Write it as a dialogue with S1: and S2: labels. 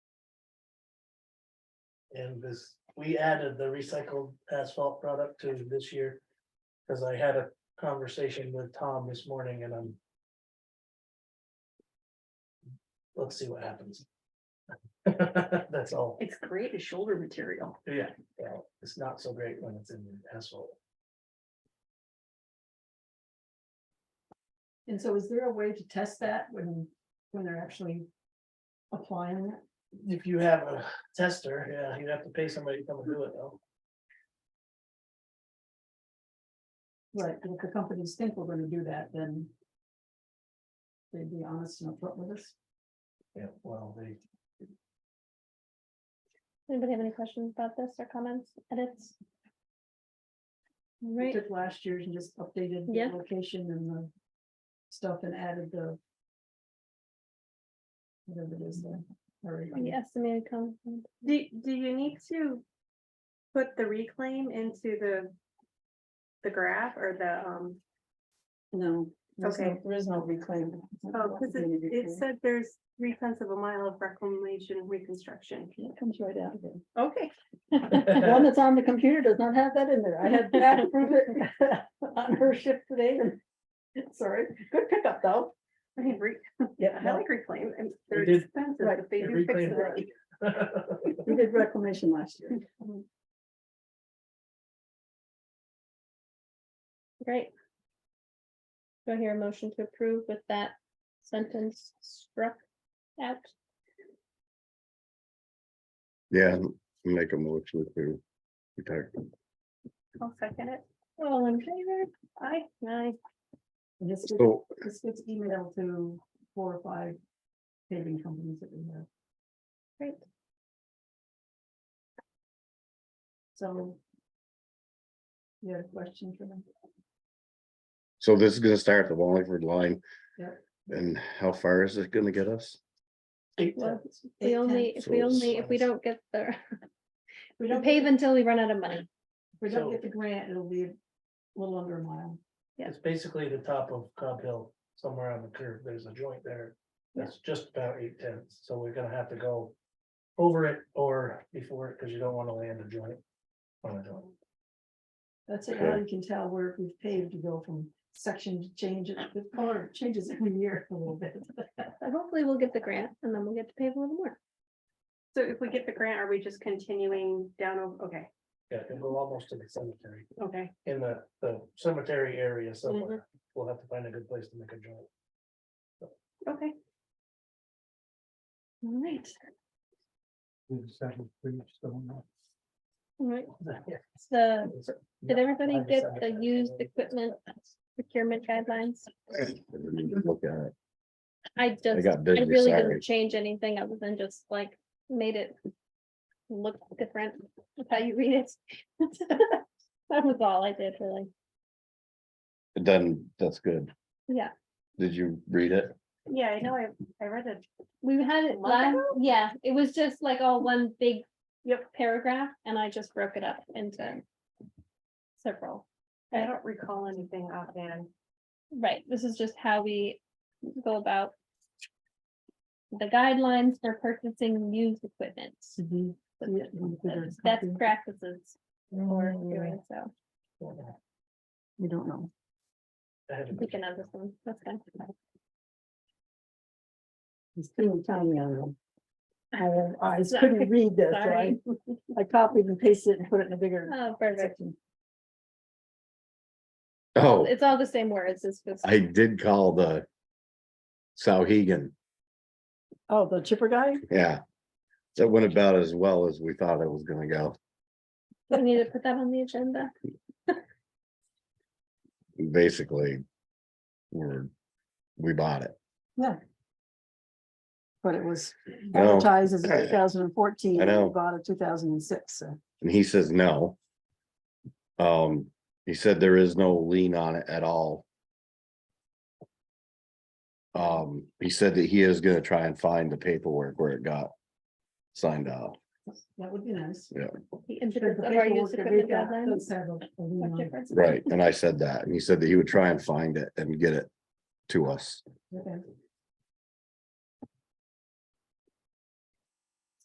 S1: And this, we added the recycled asphalt product to this year. Cause I had a conversation with Tom this morning and I'm. Let's see what happens. That's all.
S2: It's great as shoulder material.
S1: Yeah. Well, it's not so great when it's in asphalt.
S3: And so is there a way to test that when, when they're actually applying it?
S1: If you have a tester, yeah, you'd have to pay somebody to come and do it though.
S3: Right, and if the companies think we're gonna do that, then they'd be honest and upfront with us.
S1: Yeah, well, they,
S4: Anybody have any questions about this or comments, edits?
S3: We
S4: Right,
S3: took last year's and just updated
S4: Yeah.
S3: the location and the stuff and added the whatever it is there. already.
S4: the estimated come,
S5: Do, do you need to put the reclaim into the, the graph or the, um,
S3: No. there's no-
S5: Okay.
S3: There is no reclaim.
S5: oh, cause it, it said there's three tenths of a mile of reclamation reconstruction.
S3: It comes right out of it.
S5: Okay.
S3: The one that's on the computer does not have that in there. I had to approve it on her shift today. and- Sorry, good pickup though.
S5: I mean, re,
S3: Yeah,
S5: I
S3: no,
S5: like reclaim and they're
S1: did-
S5: expensive,
S3: Right,
S5: but they
S1: they
S5: do fix
S1: reclaimed
S5: it.
S1: it.
S3: we did reclamation last year.
S4: great. Do I hear a motion to approve with that sentence struck out?
S6: Yeah, make a motion to protect.
S5: I'll second it.
S4: All in favor?
S5: I,
S4: Aye.
S3: And This gets-
S6: So,
S3: this gets emailed to four or five paving companies that we have.
S4: Great.
S3: So. You had a question for them?
S6: so this is gonna start at the Wallingford line.
S3: Yep.
S6: And how far is it gonna get us?
S1: Eight
S4: Well,
S1: tenths.
S3: Eight
S4: We only,
S3: tenths.
S4: if we
S6: So
S4: only, if we
S1: slice.
S4: don't get the,
S3: We
S4: we
S3: don't,
S4: pave
S3: get-
S4: until we run out of money.
S3: if we don't
S1: so-
S3: get the grant, it'll be a little under a mile.
S1: It's basically the top of Cobb Hill, somewhere on the curve, there's a joint there. That's just about eight tenths, so we're gonna have to go over it or before it, because you don't want to land a joint. On a joint,
S3: That's it,
S6: Okay.
S3: how you can tell where we've paved to go from section to change, it. the color changes every year a little bit.
S4: But hopefully we'll get the grant and then we'll get to pave a little more.
S5: so if we get the grant, are we just continuing down? o- Okay,
S1: yeah, it'll go almost to the cemetery,
S5: okay.
S1: in the, the cemetery area
S4: Mm-hmm.
S1: somewhere, we'll have to find a good place to make a joint.
S5: Okay,
S4: All right, all right. So, did everybody get the used equipment procurement guidelines?
S6: I didn't even Look at it.
S4: I just.
S6: I got
S4: I
S6: busy,
S4: really
S6: sorry.
S4: didn't change anything other than just like made it look different with how you read it. That was all I did really.
S6: Then, that's good.
S4: Yeah,
S6: Did you read it?
S5: yeah, I know, I, I read it.
S4: we had
S5: A
S4: it
S5: month
S4: last,
S5: ago?
S4: yeah, it was just like all one big paragraph and I just broke it up into several.
S5: I don't recall anything offhand.
S4: Right, this is just how we go about the guidelines for purchasing used equipment.
S3: Mhm. Yeah, you could
S4: That's-
S3: just
S4: That's
S3: copy.
S4: practices for
S3: Mm,
S4: doing so.
S3: You don't know.
S1: I had to-
S4: We can have this one, that's fine.
S3: He's couldn't tell me on them. I have eyes,
S4: Sorry.
S3: couldn't read this, so I, I copied and pasted it and put it in a bigger
S4: Oh, perfect.
S3: section.
S6: Oh,
S4: It's all the same words, it's just.
S6: I did call the. Sauhegan,
S3: Oh, the chipper guy?
S6: yeah. That went about as well as we thought it was gonna go.
S4: We need to put that on the agenda.
S6: Basically. We're, we bought it.
S3: But it was
S6: No.
S3: advertised as two thousand and fourteen.
S6: I know.
S3: Bought it two thousand and six, so.
S6: And he says no. Um, he said there is no lien on it at all. Um, he said that he is gonna try and find the paperwork where it got signed off.
S3: That would be nice.
S4: The
S3: But
S4: impetus
S3: the
S4: of our
S3: paperwork
S4: used
S3: that we've
S4: equipment
S3: got
S4: guidelines.
S3: does have a- a lien
S4: are
S3: on it.
S4: different.
S6: Right, and I said that, and he said that he would try and find it and get it to us.
S3: Okay.